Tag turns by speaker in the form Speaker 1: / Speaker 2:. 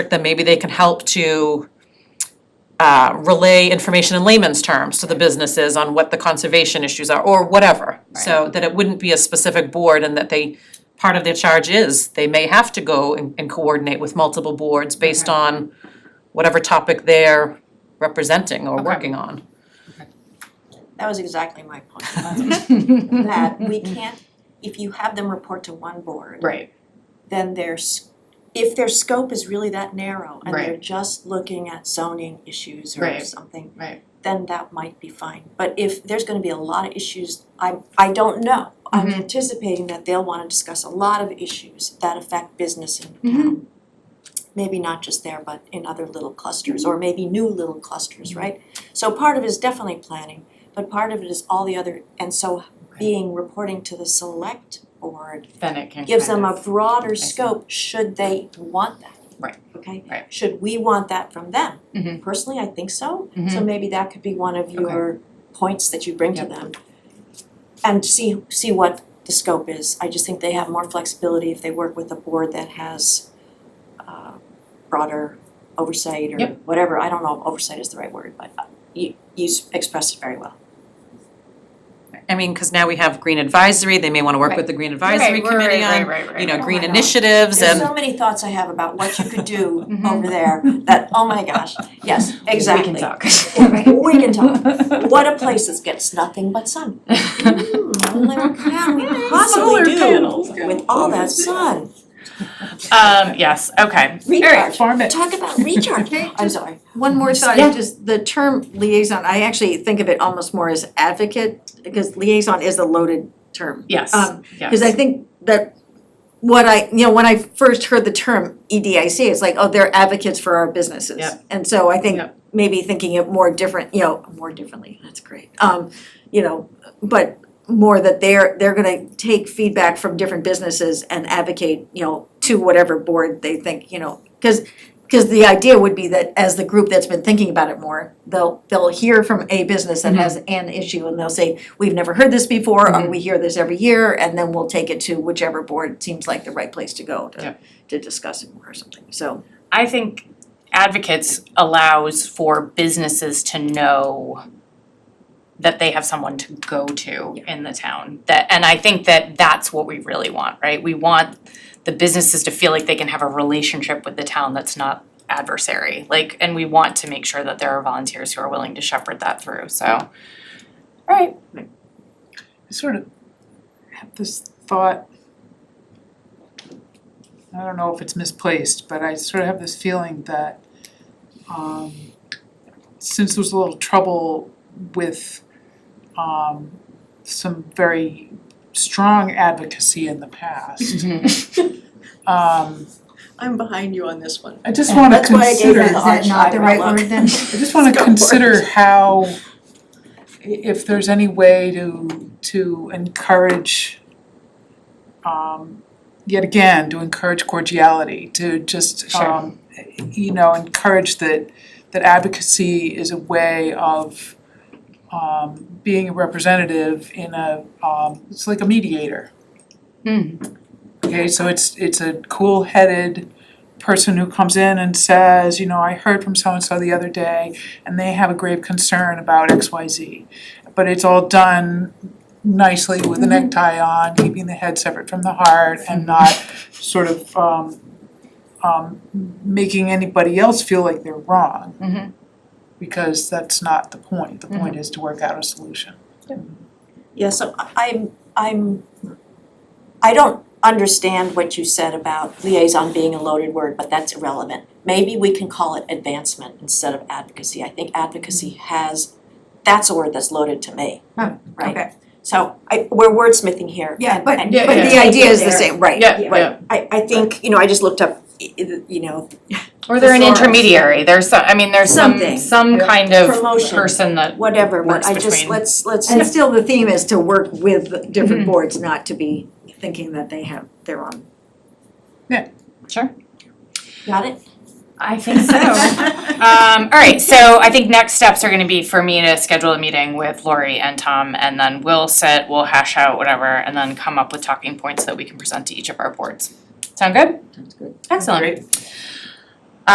Speaker 1: then maybe they can help to uh, relay information in layman's terms to the businesses on what the conservation issues are, or whatever. So that it wouldn't be a specific board and that they, part of their charge is, they may have to go and and coordinate with multiple boards based
Speaker 2: Okay.
Speaker 1: on whatever topic they're representing or working on.
Speaker 3: That was exactly my point, that we can't, if you have them report to one board,
Speaker 2: Right,
Speaker 3: then their, s- if their scope is really that narrow and they're
Speaker 2: Right.
Speaker 3: just looking at zoning issues or
Speaker 2: Right.
Speaker 3: something,
Speaker 2: right,
Speaker 3: then that might be fine. But if there's gonna be a lot of issues, I, I don't know. I'm
Speaker 2: Mhm.
Speaker 3: anticipating that they'll wanna discuss a lot of issues that affect business in
Speaker 2: Mhm.
Speaker 3: town. Maybe not just there, but in other little clusters, or maybe new little
Speaker 2: Mm-hmm.
Speaker 3: clusters, right? So part of it is definitely planning, but part of it is all the other, and so being, reporting to the select board
Speaker 2: then it can
Speaker 3: gives
Speaker 2: kind
Speaker 3: them a
Speaker 2: of-
Speaker 3: broader
Speaker 2: see.
Speaker 3: scope, should they want that?
Speaker 2: Right.
Speaker 3: Okay?
Speaker 2: Right.
Speaker 3: Should we want that from them?
Speaker 2: Mhm.
Speaker 3: Personally, I think so. So
Speaker 2: Mhm.
Speaker 3: maybe that could be one of your points that you bring to
Speaker 2: Yep.
Speaker 3: them. And see, see what the scope is. I just think they have more flexibility if they work with a board that has uh, broader oversight or
Speaker 2: Yep.
Speaker 3: whatever. I don't know if oversight is the right word, but uh, you, you s- expressed it very well.
Speaker 1: I mean, cause now we have green advisory, they may wanna work with the green advisory
Speaker 2: Right, right,
Speaker 1: committee
Speaker 2: right,
Speaker 1: on,
Speaker 2: right, right,
Speaker 1: you know,
Speaker 2: right.
Speaker 1: green
Speaker 3: Oh my God.
Speaker 1: initiatives
Speaker 3: There's
Speaker 1: and.
Speaker 3: so many thoughts I have about what you could do
Speaker 2: Mhm.
Speaker 3: over there that, oh my gosh, yes, exactly.
Speaker 2: We can talk.
Speaker 3: We can talk. What a place that gets nothing but sun. Mm, I'm like, what can we
Speaker 2: Solar
Speaker 3: possibly
Speaker 2: panels.
Speaker 3: do with all that sun?
Speaker 2: Um, yes, okay.
Speaker 3: Recharge,
Speaker 4: Farm it.
Speaker 3: talk about recharge. I'm sorry.
Speaker 5: One more thought,
Speaker 2: Mm-hmm. Yeah.
Speaker 5: just the term liaison, I actually think of it almost more as advocate, because liaison is a loaded term.
Speaker 2: Yes,
Speaker 5: Um,
Speaker 2: yes.
Speaker 5: Cause I think that what I, you know, when I first heard the term EDIC, it's like, oh, they're advocates for our businesses.
Speaker 2: Yep.
Speaker 5: And so I think
Speaker 2: Yep.
Speaker 5: maybe thinking it more different, you know, more differently, that's great. Um, you know, but more that they're, they're gonna take feedback from different businesses and advocate, you know, to whatever board they think, you know, cause, cause the idea would be that as the group that's been thinking about it more, they'll, they'll hear from a business that has an issue and they'll say, we've never heard this before, or we hear this every year, and then we'll take it to whichever board seems like the right place to go
Speaker 2: Yeah.
Speaker 5: to, to discuss it more or something, so.
Speaker 2: I think advocates allows for businesses to know that they have someone to go to in the town. That, and I think that that's what we really want, right? We want the businesses to feel like they can have a relationship with the town that's not adversary. Like, and we want to make sure that there are volunteers who are willing to shepherd that through, so. All right,
Speaker 4: I sort of had this thought. I don't know if it's misplaced, but I sort of have this feeling that um since there was a little trouble with um some very strong advocacy in the past, um
Speaker 3: I'm behind you on this one.
Speaker 4: I just wanna consider
Speaker 3: that not the right word then?
Speaker 4: I just wanna
Speaker 3: Go for it.
Speaker 4: consider how, i- if there's any way to, to encourage, um, yet again, to encourage cordiality, to just,
Speaker 2: Sure.
Speaker 4: um, you know, encourage that, that advocacy is a way of, um, being a representative in a, um, it's like a mediator.
Speaker 2: Hmm.
Speaker 4: Okay, so it's, it's a cool-headed person who comes in and says, you know, I heard from so-and-so the other day, and they have a grave concern about X, Y, Z. But it's all done nicely with a necktie on, keeping the head separate from the heart, and not sort of, um, um, making anybody else feel like they're wrong.
Speaker 2: Mhm.
Speaker 4: Because that's not the point, the point is to work out a solution.
Speaker 3: Yeah, so I- I'm, I'm, I don't understand what you said about liaison being a loaded word, but that's irrelevant. Maybe we can call it advancement instead of advocacy. I think advocacy has, that's a word that's loaded to me,
Speaker 5: Huh,
Speaker 3: right? So I, we're wordsmithing here.
Speaker 5: Yeah,
Speaker 3: and-
Speaker 5: but, but
Speaker 3: and-
Speaker 2: Yeah, yeah.
Speaker 5: the idea is the
Speaker 3: There.
Speaker 5: same, right,
Speaker 2: Yeah,
Speaker 3: Right.
Speaker 2: yeah.
Speaker 3: I, I think, you know, I just looked up, i- i- you know,
Speaker 2: Or they're an
Speaker 3: Thesaurus.
Speaker 2: intermediary, there's some, I mean, there's some,
Speaker 3: Something.
Speaker 2: some kind of
Speaker 3: Promotion.
Speaker 2: person that,
Speaker 3: whatever, but
Speaker 2: Works
Speaker 3: I just,
Speaker 2: between-
Speaker 3: let's, let's.
Speaker 5: And still the theme is to work with different boards, not to be thinking that they have their own.
Speaker 2: sure,
Speaker 3: Got it?
Speaker 2: I think so. Um, all right, so I think next steps are gonna be for me to schedule a meeting with Lori and Tom, and then we'll sit, we'll hash out whatever, and then come up with talking points that we can present to each of our boards. Sound good?
Speaker 5: Sounds good.
Speaker 2: Excellent.
Speaker 4: Great.